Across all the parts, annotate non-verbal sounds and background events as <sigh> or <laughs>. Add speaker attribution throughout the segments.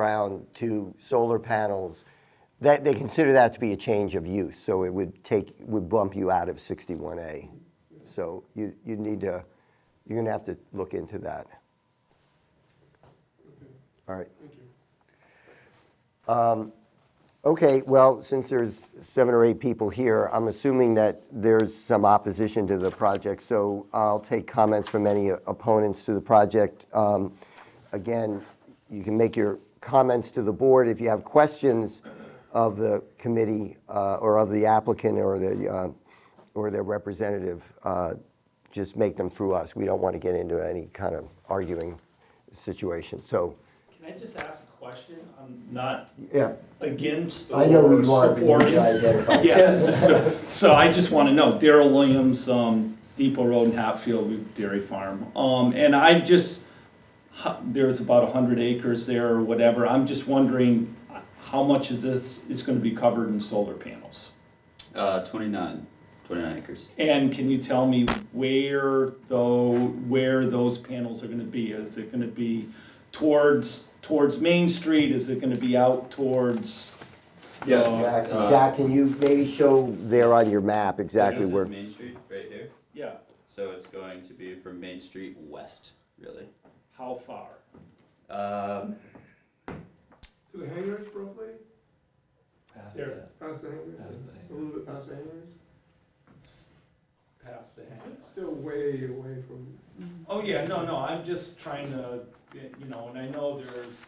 Speaker 1: ground to solar panels, that, they consider that to be a change of use, so it would take, would bump you out of 61A. So you, you need to, you're gonna have to look into that. All right.
Speaker 2: Thank you.
Speaker 1: Okay, well, since there's seven or eight people here, I'm assuming that there's some opposition to the project, so I'll take comments from any opponents to the project. Um, Again, you can make your comments to the board. If you have questions of the committee uh, or of the applicant or the, uh, or their representative, uh, just make them through us. We don't want to get into any kind of arguing situation, so.
Speaker 3: Can I just ask a question? I'm not
Speaker 1: Yeah,
Speaker 3: against
Speaker 1: I know
Speaker 3: or
Speaker 1: you are, but you need to
Speaker 3: supporting.
Speaker 1: identify.
Speaker 3: <laughs> Yeah, so, so I just want to know, Daryl Williams, um, Depot Road in Hatfield, with Dairy Farm. Um, and I just, hu- there's about a hundred acres there or whatever. I'm just wondering, uh, how much of this is going to be covered in solar panels?
Speaker 4: Uh, 29, 29 acres.
Speaker 3: And can you tell me where though, where those panels are gonna be? Is it gonna be towards, towards Main Street? Is it gonna be out towards?
Speaker 4: Yeah,
Speaker 3: uh,
Speaker 1: Zach, Zach, can you maybe show there on your map exactly
Speaker 4: This is
Speaker 1: where?
Speaker 4: Main Street, right here.
Speaker 3: Yeah,
Speaker 4: So it's going to be from Main Street west, really.
Speaker 3: how far?
Speaker 4: Um,
Speaker 2: To the hangars roughly,
Speaker 3: There.
Speaker 2: past the hangars? A little bit past the hangars?
Speaker 3: Past the hand.
Speaker 2: Still way away from,
Speaker 3: Oh, yeah, no, no, I'm just trying to, you know, and I know there's,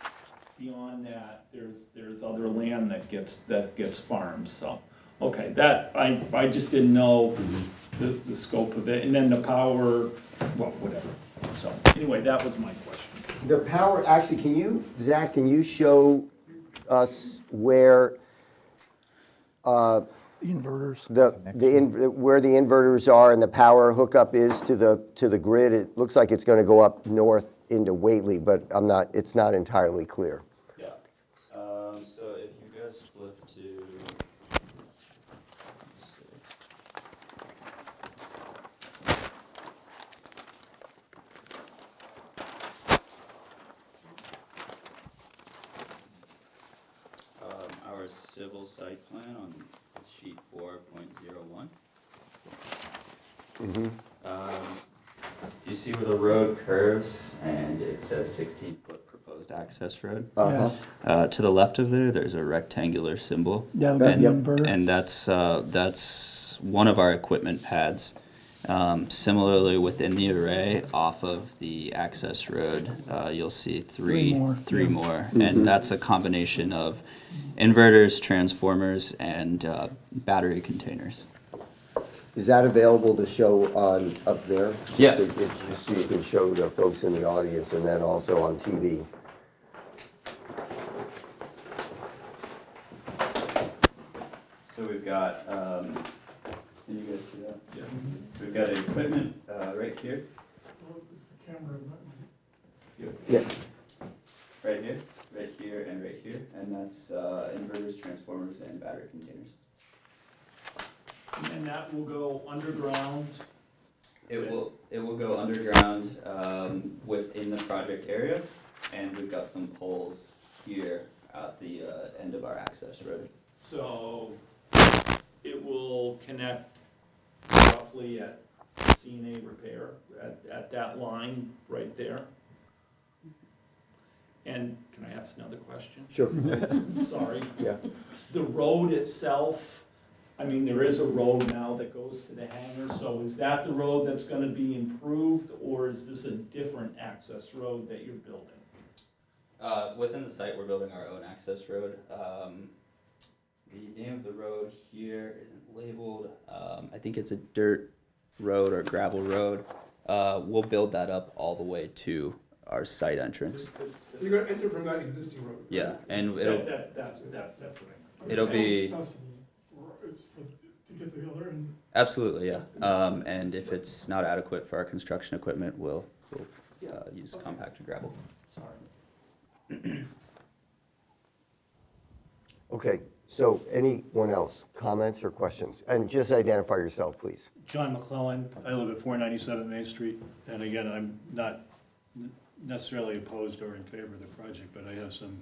Speaker 3: beyond that, there's, there's other land that gets, that gets farmed, so. Okay, that, I, I just didn't know the, the scope of it, and then the power, well, whatever. So, anyway, that was my question.
Speaker 1: The power, actually, can you, Zach, can you show us where
Speaker 5: Inverters.
Speaker 1: the, the, in- where the inverters are and the power hookup is to the, to the grid? It looks like it's gonna go up north into Whately, but I'm not, it's not entirely clear.
Speaker 4: yeah. Um, so if you guys flip to. let's see. Um, our civil site plan on sheet 4.01. Um, you see where the road curves and it says 16 foot proposed access road?
Speaker 1: Uh-huh.
Speaker 5: Yes.
Speaker 4: Uh, to the left of there, there's a rectangular symbol.
Speaker 5: Yeah, the
Speaker 4: and,
Speaker 5: inverter.
Speaker 4: and that's uh, that's one of our equipment pads. Um, similarly, within the array, off of the access road, uh, you'll see three
Speaker 5: Three more,
Speaker 4: three
Speaker 5: yeah.
Speaker 4: more, and that's a combination of inverters, transformers, and uh, battery containers.
Speaker 1: Is that available to show on, up there?
Speaker 4: Yeah.
Speaker 1: So you so you can show the folks in the audience and then also on TV.
Speaker 4: So we've got, um, can you guys see that? Yeah. We've got equipment, uh, right here,
Speaker 1: Yeah,
Speaker 4: right here, right here, and right here, and that's, uh, inverters, transformers, and battery containers.
Speaker 3: And then that will go underground,
Speaker 4: It will, it will go underground, um, within the project area, and we've got some poles here at the, uh, end of our access road.
Speaker 3: so it will connect roughly at CNA Repair, at, at that line right there. And can I ask another question? <laughs>
Speaker 1: sure,
Speaker 3: Sorry.
Speaker 1: yeah.
Speaker 3: The road itself, I mean, there is a road now that goes to the hangar, so is that the road that's gonna be improved, or is this a different access road that you're building?
Speaker 4: Uh, within the site, we're building our own access road. Um, the name of the road here isn't labeled. Um, I think it's a dirt road or gravel road. Uh, we'll build that up all the way to our site entrance.
Speaker 3: Just- just- just-
Speaker 2: you're gonna enter from that existing road. right?
Speaker 4: Yeah, and
Speaker 3: That,
Speaker 4: it'll,
Speaker 3: that, that's, that, that's what I meant.
Speaker 4: It'll be-
Speaker 6: It's for, to get to the other end.
Speaker 4: absolutely, yeah. Um, and if it's not adequate for our construction equipment, we'll, we'll, uh, use compacted gravel.
Speaker 3: Sorry.
Speaker 1: Okay, so anyone else, comments or questions? And just identify yourself, please.
Speaker 7: John McClellan, I live at 497 Main Street, and again, I'm not necessarily opposed or in favor of the project, but I have some